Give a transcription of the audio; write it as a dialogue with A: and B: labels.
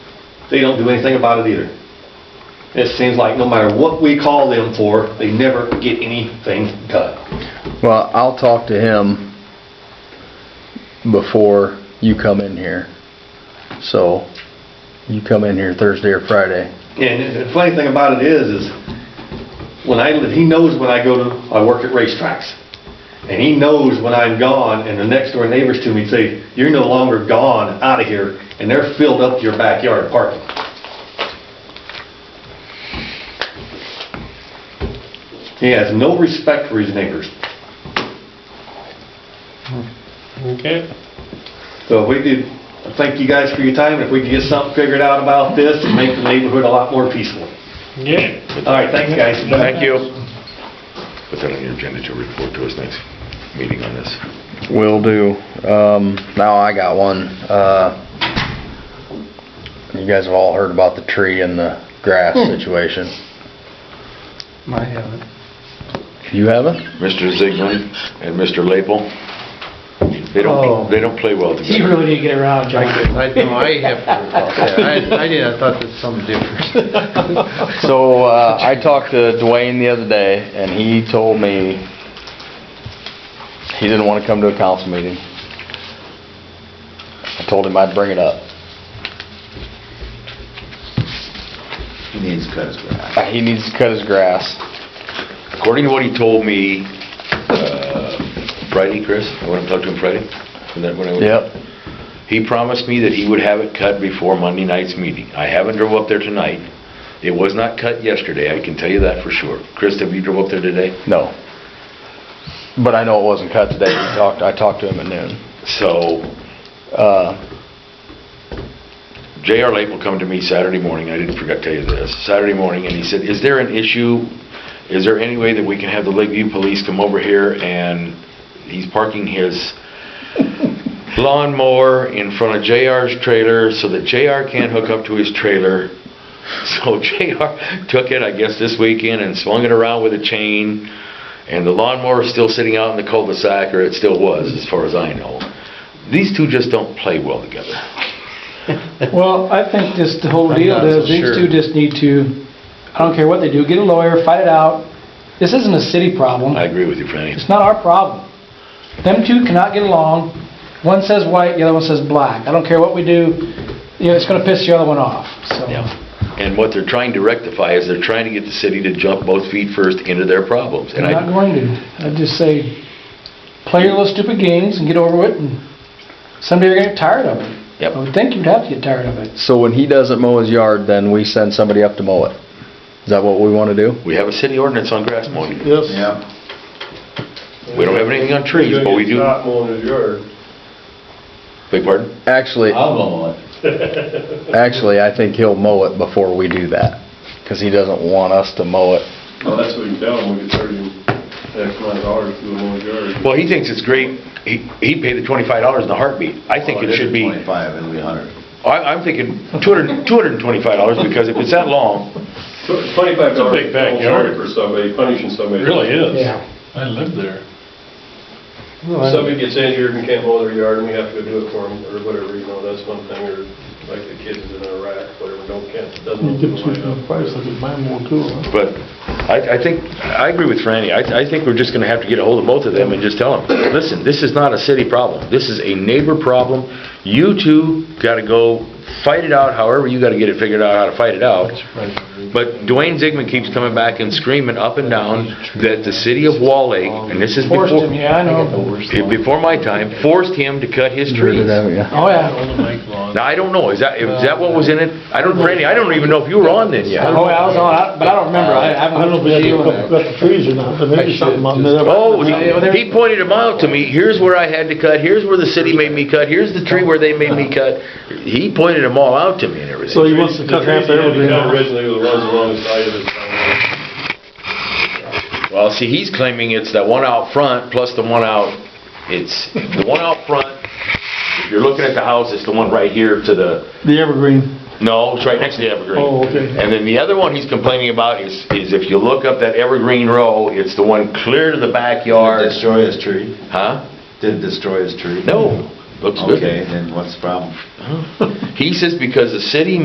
A: They don't do anything about it either. It seems like no matter what we call them for, they never get anything done.
B: Well, I'll talk to him before you come in here. So, you come in here Thursday or Friday.
A: And the funny thing about it is, is when I, he knows when I go to, I work at racetracks. And he knows when I'm gone and the next door neighbors to me say, you're no longer gone, out of here. And they're filled up your backyard parking. He has no respect for his neighbors.
C: Okay.
A: So if we did, I thank you guys for your time. If we could get something figured out about this and make the neighborhood a lot more peaceful.
C: Yeah.
A: All right, thanks, guys.
B: Thank you.
D: Put that on your agenda to report to us next meeting on this.
B: Will do. Um, now I got one. Uh, you guys have all heard about the tree and the grass situation.
C: I haven't.
B: You haven't?
D: Mr. Ziegler and Mr. Lapel, they
C: Oh.
D: don't, they don't play well
C: You
D: together.
C: really didn't get around, John.
E: I know, I have, I, I did, I thought that's something different.
B: So, uh, I talked to Dwayne the other day, and he told me he didn't wanna come to a council meeting. I told him I'd bring it up.
D: He needs cuts, right?
B: Uh, He needs to cut his grass.
D: According to what he told me, uh, Friday, Chris, I went and talked to him Friday. Isn't that when I went?
B: Yep.
D: He promised me that he would have it cut before Monday night's meeting. I haven't drove up there tonight. It was not cut yesterday, I can tell you that for sure. Chris, have you drove up there today?
B: No. But I know it wasn't cut today. We talked, I talked to him at noon.
D: So,
B: Uh,
D: J.R. Lake will come to me Saturday morning, I didn't forget to tell you this, Saturday morning, and he said, "Is there an issue? Is there any way that we can have the Lakeview Police come over here?" And he's parking his lawnmower in front of J.R.'s trailer so that J.R. can't hook up to his trailer. So J.R. took it, I guess, this weekend and swung it around with a chain, and the lawnmower is still sitting out in the cul-de-sac, or it still was, as far as I know. These two just don't play well together.
C: Well, I think this the whole deal
E: not
C: is,
E: so
C: these
E: sure.
C: two just need to, I don't care what they do, get a lawyer, fight it out. This isn't a city problem.
D: I agree with you, Franny.
C: It's not our problem. Them two cannot get along. One says white, the other one says black. I don't care what we do, you know, it's gonna piss the other one off, so.
D: And what they're trying to rectify is they're trying to get the city to jump both feet first into their problems. And
C: I'm not
D: I,
C: going to. I just say, play your little stupid games and get over it, and someday you're gonna get tired of it.
D: Yep.
C: I would think you'd have to get tired of it.
B: so when he doesn't mow his yard, then we send somebody up to mow it. Is that what we wanna do?
D: we have a city ordinance on grass mowing.
E: Yes.
D: We don't have anything on trees, but we do.
E: Not mowing his yard.
D: Beg pardon?
B: Actually,
A: mow it.
B: actually, I think he'll mow it before we do that, cause he doesn't want us to mow it.
E: Well, that's what you tell him, we could charge him X amount of dollars to mow his yard.
D: Well, he thinks it's great. He, he'd pay the twenty-five dollars in a heartbeat. I
A: Oh,
D: think it should be, I,
F: Twenty-five, it'll be a hundred.
D: I'm thinking two hundred, two hundred and twenty-five dollars because if it's that long,
E: Twenty-five dollars.
G: It's a big backyard.
E: For somebody, punishing somebody.
G: It really is.
C: Yeah.
G: I live there.
E: If Somebody gets injured and can't mow their yard, and we have to go do it for them, or whatever, you know, that's one thing, or like the kids in Iraq, whatever, don't can't, doesn't.
D: but I, I think, I agree with Franny. I, I think we're just gonna have to get a hold of both of them and just tell them, listen, this is not a city problem. This is a neighbor problem. You two gotta go fight it out however you gotta get it figured out how to fight it out. But Dwayne Zigman keeps coming back and screaming up and down that the city of Wall Lake, and this is
C: Forced
D: before,
C: him, yeah, I know.
D: before my time, forced him to cut his trees.
B: Yeah.
C: Oh, yeah.
D: Now, I don't know, is that, is that what was in it? I don't, Randy, I don't even know if you were on then yet.
C: Oh, yeah, I was on, I- but I don't remember. I I haven't.
G: the trees or not, but maybe something on
D: Oh, he he pointed them out to me, here's where I had to cut, here's where the city made me cut, here's the tree where they made me cut. He pointed them all out to me and everything.
G: he wants to cut half the evergreen off.
E: Originally, the ones along the side of his town.
D: Well, see, he's claiming it's that one out front plus the one out, it's, the one out front, if you're looking at the house, it's the one right here to the,
C: The Evergreen.
D: no, it's right next to the evergreen.
C: Oh, okay.
D: And then the other one he's complaining about is, is if you look up that evergreen row, it's the one clear to the backyard,
F: Destroy his tree?
D: huh?
F: Did it destroy his tree?
D: No, looks good.
F: Okay, then what's the problem?
D: He says because the city